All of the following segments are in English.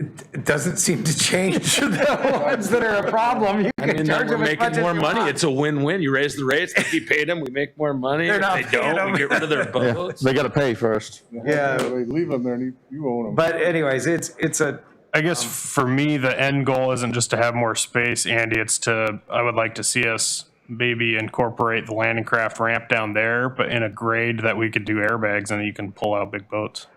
it doesn't seem to change the ones that are a problem. You I mean, can then charge we're them as making much more as you money. want. It's a win-win. You raise the rates, if you pay them, we make more money. They're If not they paying don't, we them. get rid of their boats. They gotta pay first. Yeah, They leave them there and you- you own them. but anyways, it's, it's a, I guess Um, for me, the end goal isn't just to have more space, Andy. It's to, I would like to see us maybe incorporate the landing craft ramp down there, but in a grade that we could do airbags and you can pull out big boats.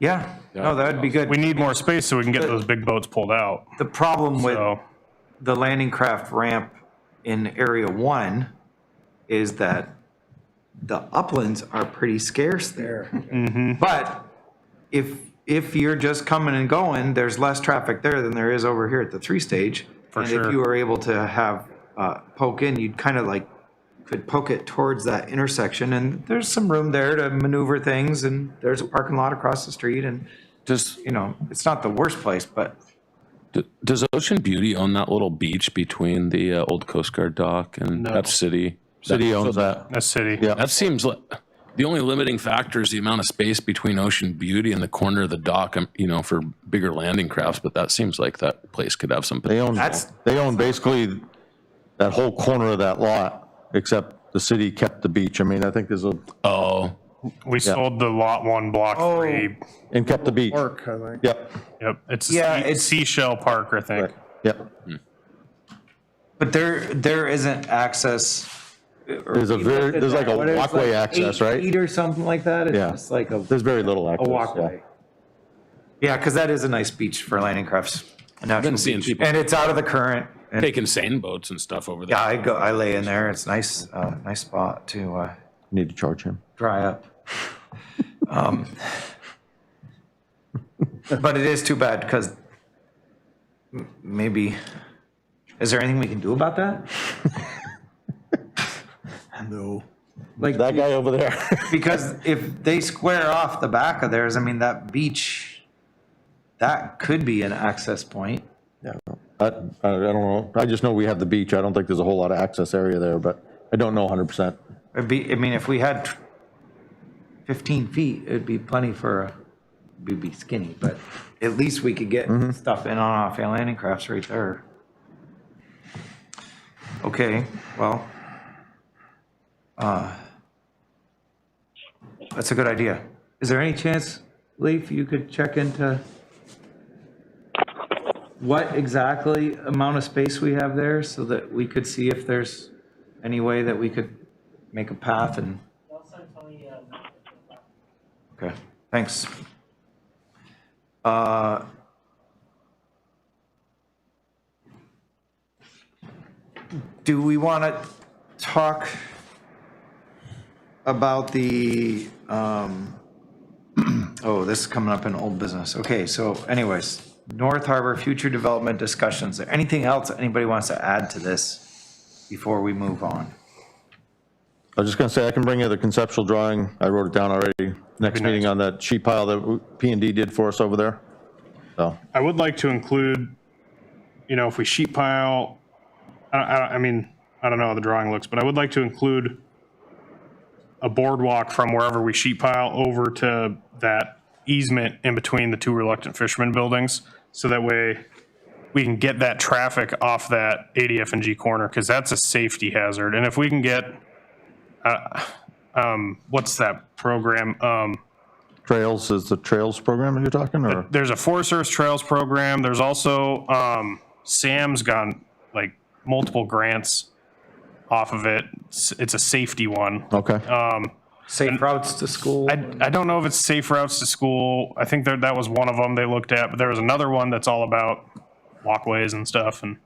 yeah, no, that would be good. We need more space so we can get those big boats pulled out. The problem with So the landing craft ramp in area one is that the uplands are pretty scarce there. But if, if you're just coming and going, there's less traffic there than there is over here at the three stage. For And if sure. you were able to have, uh, poke in, you'd kind of like, could poke it towards that intersection and there's some room there to maneuver things and there's a parking lot across the street and, Does you know, it's not the worst place, but d- does Ocean Beauty own that little beach between the uh, old Coast Guard dock and No. that city? City owns that. a city. Yeah. That seems like the only limiting factor is the amount of space between Ocean Beauty and the corner of the dock. um, You know, for bigger landing crafts, but that seems like that place could have some. They own, That's- they own basically that whole corner of that lot, except the city kept the beach. I mean, I think there's a, Oh, We sold the lot one block Oh. three. and kept the beach. Park, I think. Yep, Yep. It's a Yeah, sea- it's- seashell park, I think. yep. But there, there isn't access. There's a very, there's like a What is it, walkway like access, eight right? Feet or something like that. It's Yeah. just like a, There's very little access. a yeah. walkway. Yeah, because that is a nice beach for landing crafts. I've been seeing people- And it's out of the current. And taking seine boats and stuff over there. yeah, I go, I lay in there. It's nice, uh, nice spot to, uh, Need to charge him. dry up. Um, But it is too bad because maybe, is there anything we can do about that? No. Like, That guy over there. Because if they square off the back of theirs, I mean, that beach, that could be an access point. I, I don't know. I just know we have the beach. I don't think there's a whole lot of access area there, but I don't know 100%. It'd be, I mean, if we had fifteen feet, it'd be plenty for, a- we'd be skinny, but at least we could get stuff in on off our landing crafts right there. Okay, well. uh, That's a good idea. Is there any chance, Leaf, you could check into what exactly amount of space we have there so that we could see if there's any way that we could make a path and, okay, thanks. Uh, Do we want to talk about the, um, oh, this is coming up in old business. Okay, so anyways, North Harbor future development discussions. Anything else anybody wants to add to this before we move on? I was just going to say, I can bring you the conceptual drawing. I wrote it down already. Next meeting on that sheet pile that P and D did for us over there. So, I would like to include, you know, if we sheet pile, I, I, I mean, I don't know how the drawing looks, but I would like to include a boardwalk from wherever we sheet pile over to that easement in between the two reluctant fishermen buildings. So that way we can get that traffic off that ADF and G corner, because that's a safety hazard. And if we can get, uh, um, what's that program? Um, trails, is the trails program that you're talking, or? there's a Forest Service Trails program. There's also, um, Sam's gotten like multiple grants off of it. It's, it's a safety one. Okay, Um, Safe routes to school. I, I don't know if it's safe routes to school. I think that that was one of them they looked at, but there was another one that's all about walkways and stuff. And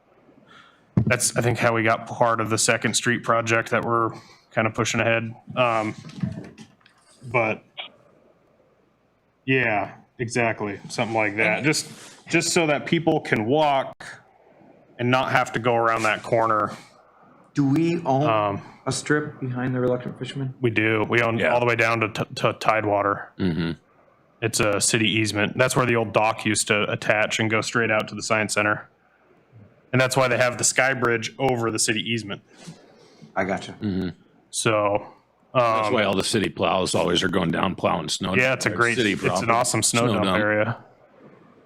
that's, I think, how we got part of the Second Street project that we're kind of pushing ahead. Um, but yeah, exactly. Something like that. Just, just so that people can walk and not have to go around that corner. Do we own Um, a strip behind the reluctant fisherman? We do. We own Yeah. all the way down to, t- to Tidewater. Mhm. It's a city easement. That's where the old dock used to attach and go straight out to the science center. And that's why they have the sky bridge over the city easement. I gotcha. So, That's um, why all the city plows always are going down plowing snow. yeah, it's a great, city it's problem. an awesome snow dump area.